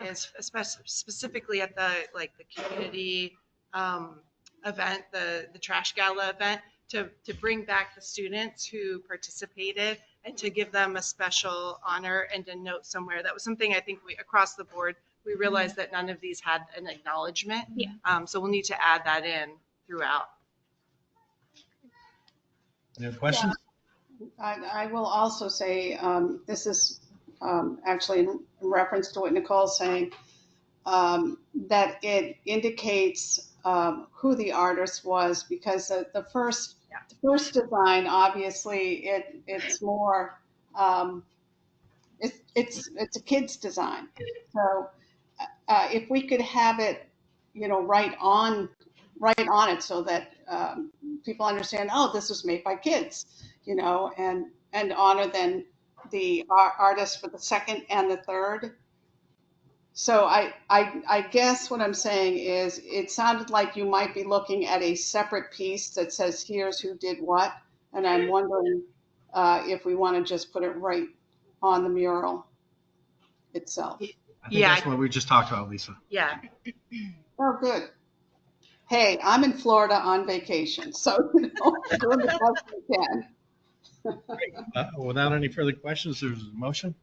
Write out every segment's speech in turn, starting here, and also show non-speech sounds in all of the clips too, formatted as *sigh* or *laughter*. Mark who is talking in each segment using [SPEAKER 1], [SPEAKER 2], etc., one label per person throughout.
[SPEAKER 1] and especially specifically at the, like, the community um, event, the, the trash gala event, to, to bring back the students who participated and to give them a special honor and a note somewhere. That was something I think we, across the board, we realized that none of these had an acknowledgement.
[SPEAKER 2] Yeah.
[SPEAKER 1] Um, So we'll need to add that in throughout.
[SPEAKER 3] Any other questions?
[SPEAKER 4] I, I will also say, um, this is, um, actually in reference to what Nicole's saying, um, that it indicates, um, who the artist was because the, the first,
[SPEAKER 1] Yeah.
[SPEAKER 4] the first design, obviously, it, it's more, um, it's, it's, it's a kid's design. So, uh, if we could have it, you know, right on, right on it so that, um, people understand, oh, this was made by kids you know, and, and honor then the ar- artist for the second and the third. So I, I, I guess what I'm saying is it sounded like you might be looking at a separate piece that says, here's who did what. And I'm wondering uh, if we want to just put it right on the mural itself.
[SPEAKER 3] I think
[SPEAKER 1] Yeah.
[SPEAKER 3] that's what we just talked about, Lisa.
[SPEAKER 1] Yeah.
[SPEAKER 4] Oh, good. Hey, I'm in Florida on vacation, so *laughs* you know, doing the best we can.
[SPEAKER 3] Uh, Without any further questions, there's a motion.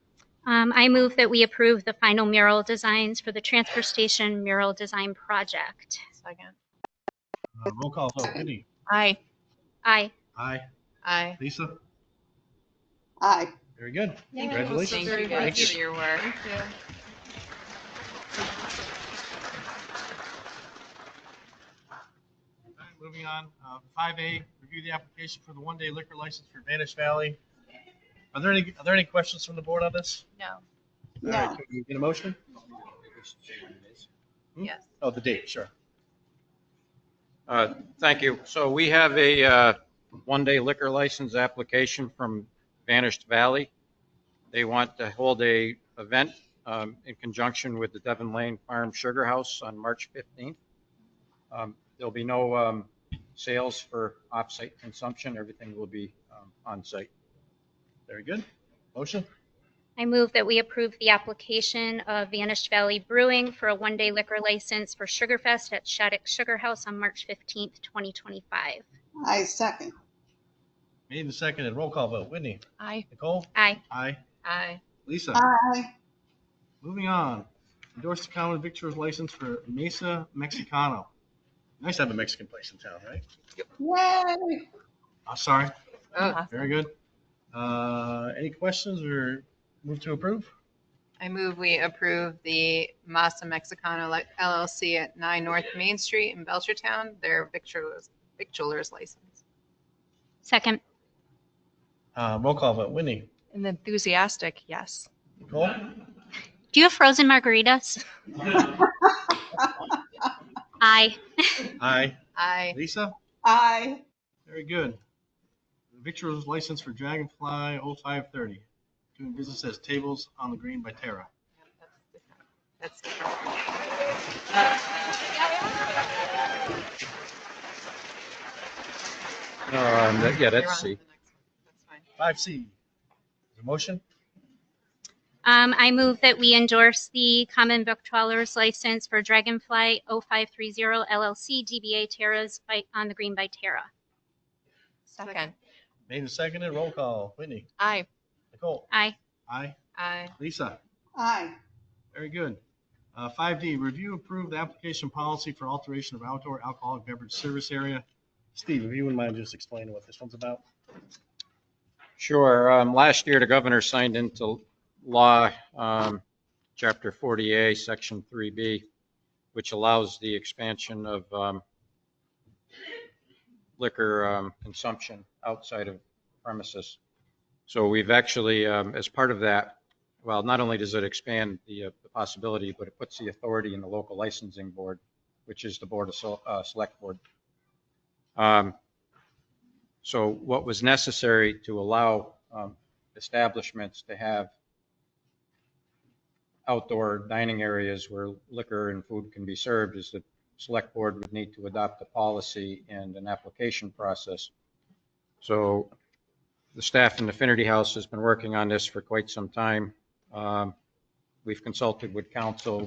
[SPEAKER 2] Um, I move that we approve the final mural designs for the transfer station mural design project.
[SPEAKER 5] Second.
[SPEAKER 3] Uh, Roll call vote. Whitney?
[SPEAKER 5] Aye.
[SPEAKER 2] Aye.
[SPEAKER 3] Aye.
[SPEAKER 5] Aye.
[SPEAKER 3] Lisa?
[SPEAKER 4] Aye.
[SPEAKER 3] Very good.
[SPEAKER 1] Thank you.
[SPEAKER 3] Congratulations.
[SPEAKER 5] Thank you guys
[SPEAKER 3] Thanks.
[SPEAKER 5] for your work.
[SPEAKER 3] All right, Moving on, Uh, five A, review the application for the one-day liquor license for Vanish Valley. Are there any, are there any questions from the board on this?
[SPEAKER 5] No.
[SPEAKER 3] All
[SPEAKER 4] No.
[SPEAKER 3] right, can we Get a motion? Hmm?
[SPEAKER 5] Yes.
[SPEAKER 3] Oh, the date, sure.
[SPEAKER 6] Uh, Thank you. So we have a uh, one-day liquor license application from Vanished Valley. They want to hold a event um, in conjunction with the Devon Lane Farm Sugar House on March 15th. Um, There'll be no um, sales for off-site consumption. Everything will be um, on-site.
[SPEAKER 3] Very good. Motion?
[SPEAKER 2] I move that we approve the application of Vanished Valley Brewing for a one-day liquor license for Sugarfest at Shattuck Sugar House on March 15th, 2025.
[SPEAKER 4] I second.
[SPEAKER 3] Made and seconded. Roll call vote. Whitney?
[SPEAKER 5] Aye.
[SPEAKER 3] Nicole?
[SPEAKER 2] Aye.
[SPEAKER 3] Aye.
[SPEAKER 5] Aye.
[SPEAKER 3] Lisa?
[SPEAKER 4] Aye.
[SPEAKER 3] Moving on, endorse the common victor's license for Mesa Mexicano. Nice to have a Mexican place in town, right?
[SPEAKER 4] Yay!
[SPEAKER 3] I'm sorry,
[SPEAKER 5] Oh,
[SPEAKER 3] very good. Uh, Any questions or move to approve?
[SPEAKER 5] I move we approve the Masa Mexicano LLC at 9 North Main Street in Belchertown, their victualers, victualers license.
[SPEAKER 2] Second.
[SPEAKER 3] Uh, Roll call vote, Whitney,
[SPEAKER 7] An enthusiastic yes.
[SPEAKER 3] Nicole?
[SPEAKER 2] Do you have frozen margaritas? Aye.
[SPEAKER 3] Aye.
[SPEAKER 5] Aye.
[SPEAKER 3] Lisa?
[SPEAKER 4] Aye.
[SPEAKER 3] Very good. Victor's license for Dragonfly 0530, doing business as Tables on the Green by Terra.
[SPEAKER 5] That's different.
[SPEAKER 6] Um, that- Yeah,
[SPEAKER 5] You're on
[SPEAKER 6] that's
[SPEAKER 5] to
[SPEAKER 6] C.
[SPEAKER 5] the next one. That's fine.
[SPEAKER 3] 5C, the motion?
[SPEAKER 2] Um, I move that we endorse the common book trawler's license for Dragonfly 0530 LLC DBA Terra's Bite on the Green by Terra.
[SPEAKER 7] Second.
[SPEAKER 3] Made and seconded, roll call, Whitney,
[SPEAKER 7] Aye.
[SPEAKER 3] Nicole?
[SPEAKER 2] Aye.
[SPEAKER 3] Aye.
[SPEAKER 5] Aye.
[SPEAKER 3] Lisa?
[SPEAKER 4] Aye.
[SPEAKER 3] Very good. Uh, Five D, review approved application policy for alteration of outdoor alcoholic beverage service area. Steve, if you wouldn't mind just explaining what this one's about?
[SPEAKER 6] Sure. Um, Last year, the governor signed into law, um, Chapter 40A, Section 3B, which allows the expansion of um, liquor um, consumption outside of premises. So we've actually, um, as part of that, well, not only does it expand the uh, the possibility, but it puts the authority in the local licensing board, which is the Board of Sel- uh, Select Board. Um, so what was necessary to allow um, establishments to have outdoor dining areas where liquor and food can be served is the select board would need to adopt a policy and an application process. So the staff in the Affinity House has been working on this for quite some time. Um, We've consulted with council.